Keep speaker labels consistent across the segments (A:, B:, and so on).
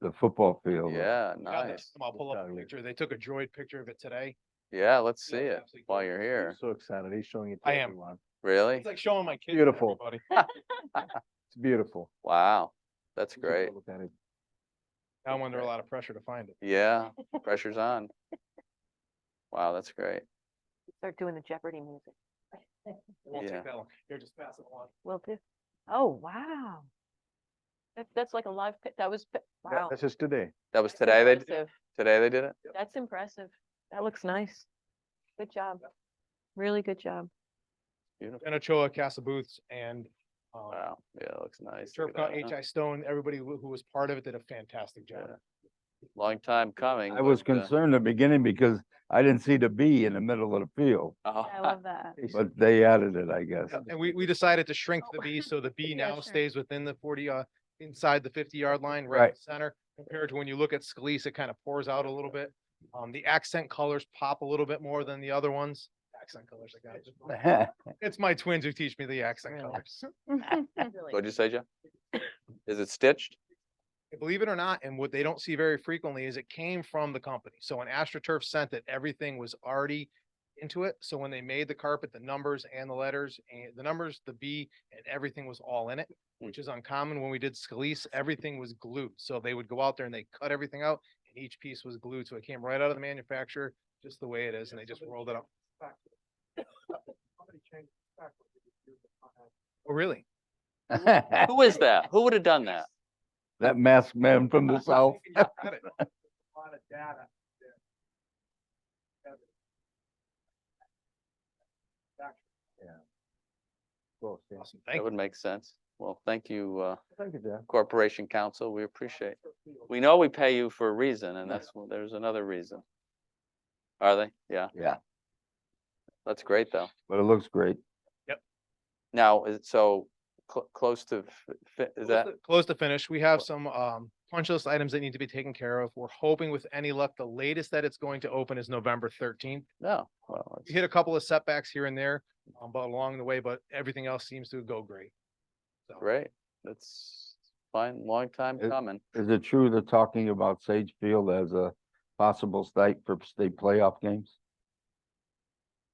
A: the football field.
B: Yeah,
C: Got
B: nice.
C: this. I'll pull up a
D: Exactly.
C: picture. They took a droid picture of it today.
B: Yeah, let's see
C: Yeah, it's
B: it
C: absolutely
B: while
C: gorgeous.
B: you're
D: I'm
B: here.
D: So excited. He's showing it to
C: I am.
D: everyone.
B: Really?
C: It's like showing my kids.
D: Beautiful.
C: Buddy.
D: It's beautiful.
B: Wow, that's
D: You should go
B: great.
D: look at it.
C: Now I'm under a lot of pressure to find it.
B: Yeah, pressure's on. Wow, that's great.
E: Start doing the Jeopardy music.
C: It won't
B: Yeah.
C: take that long. Here, just pass it along.
E: Will do. Oh, wow. That, that's like a live, pi- that was, pi-
D: That-
E: wow.
D: That's just today.
B: That was
E: That's
B: today they, d-
E: impressive.
B: today they did it?
E: That's impressive. That looks nice. Good job. Really good job.
B: Beautiful.
C: Anachoa, Casa Booths and um,
B: Wow, yeah, it looks nice.
C: Turf
B: Look at
C: Con-
B: that, huh?
C: HI Stone, everybody who who was part of it did a fantastic job.
B: Yeah. Long time coming.
A: I was
B: but, uh,
A: concerned at the beginning because I didn't see the B in the middle of the field,
B: oh,
E: I love that.
A: but they added it, I guess.
C: And we, we decided to shrink the
E: Oh.
C: B, so the B
E: Yeah,
C: now
E: sure.
C: stays within the forty, uh, inside the fifty yard line, right in
A: Right.
C: the center. Compared to when you look at Scalise, it kind of pours out a little bit. Um, the accent colors pop a little bit more than the other ones. Accent colors, I got it. It's my twins who teach me the accent
E: Really?
C: colors.
B: What'd you say, Jeff? Is it stitched?
C: Believe it or not, and what they don't see very frequently is it came from the company. So when AstroTurf sent it, everything was already into it. So when they made the carpet, the numbers and the letters and the numbers, the B and everything was all in it, which is uncommon. When we did Scalise, everything was glued. So they would go out there and they cut everything out and each piece was glued. So it came right out of the manufacturer, just the way it is, and they just rolled it up. Oh, really?
A: That
B: Who is that? Who would have done that?
A: masked man from the south.
C: Got it.
D: Close, yeah.
C: Awesome.
B: That
C: Thank you.
B: would make sense. Well, thank you, uh,
D: Thank you, Jeff.
B: Corporation Council. We appreciate. We know we pay you for a reason and that's, there's another reason. Are they? Yeah,
A: Yeah,
B: that's great though.
A: but it looks great.
B: Now, is it so cl- close to, f- fi- is that,
C: Close to finish. We have some um punch list items that need to be taken care of. We're hoping with any luck, the latest that it's going to open is November thirteenth.
B: no, well,
C: We
B: it's-
C: hit a couple of setbacks here and there, um, but along the way, but everything else seems to go great. So
B: great. That's fine, long time
A: It-
B: coming.
A: Is it true they're talking about Sage Field as a possible site for state playoff games?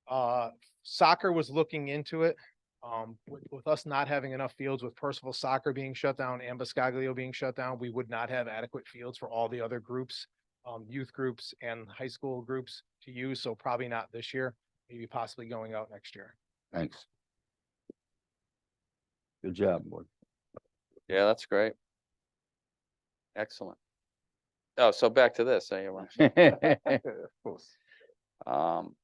C: Uh, soccer was looking into it. Um, with, with us not having enough fields, with Percival Soccer being shut down and Biscoglio being shut down, we would not have adequate fields for all the other groups, um, youth groups and high school groups to use. So probably not this year, maybe possibly going out next year.
A: Thanks. Good job, boy.
B: Yeah, that's great. Excellent. Oh, so back to this, eh, you were-
D: Of course.
B: um,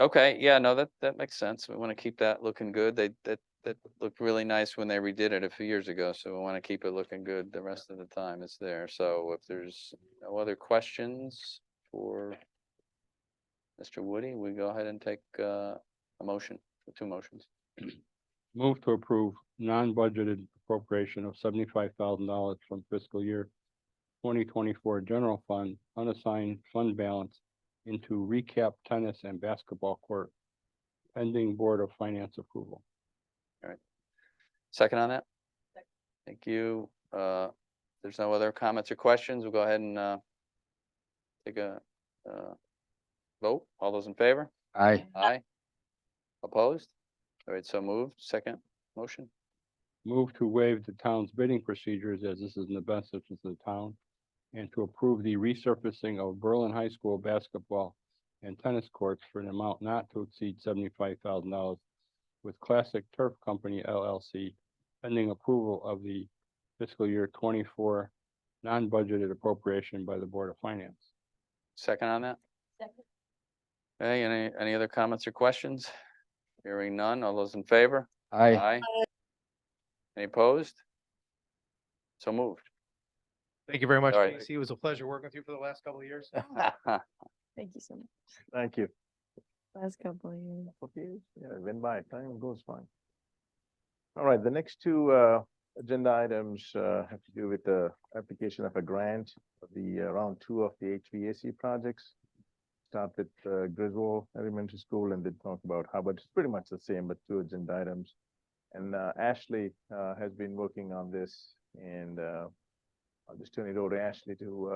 B: okay, yeah, no, that, that makes sense. We want to keep that looking good. They, that, that looked really nice when they redid it a few years ago, so we want to keep it looking good the rest of the time it's there. So if there's no other questions for Mr. Woody, we go ahead and take, uh, a motion, two motions.
F: Move to approve non-budgeted appropriation of seventy-five thousand dollars from fiscal year twenty twenty-four general fund unassigned fund balance into recap tennis and basketball court pending Board of Finance approval.
B: Second on that? Thank you. Uh, if there's no other comments or questions. We'll go ahead and, uh, take a, uh, vote. All those in favor?
A: Aye.
B: Aye. Opposed? All right, so moved. Second motion.
F: Move to waive the town's bidding procedures as this is in the best interest of the town and to approve the resurfacing of Berlin High School basketball and tennis courts for an amount not to exceed seventy-five thousand dollars with Classic Turf Company LLC pending approval of the fiscal year twenty-four non-budgeted appropriation by the Board of Finance.
B: Second on that? Hey, any, any other comments or questions? Hearing none. All those in favor?
A: Aye.
B: Aye. Any opposed? So moved.
C: Thank you very much,
B: All right.
C: Casey. It was a pleasure working with you for the last couple of years.
E: Thank you so much.
D: Thank you.
E: Last couple of years.
D: Okay, yeah, it went by, time goes fine. All right, the next two uh agenda items uh have to do with the application of a grant of the uh, round two of the HVAC projects. Start with uh, Griswold Elementary School and then talk about Hubbard, it's pretty much the same, but two agenda items. And uh Ashley uh has been working on this and uh I'll just turn it over to Ashley to, uh,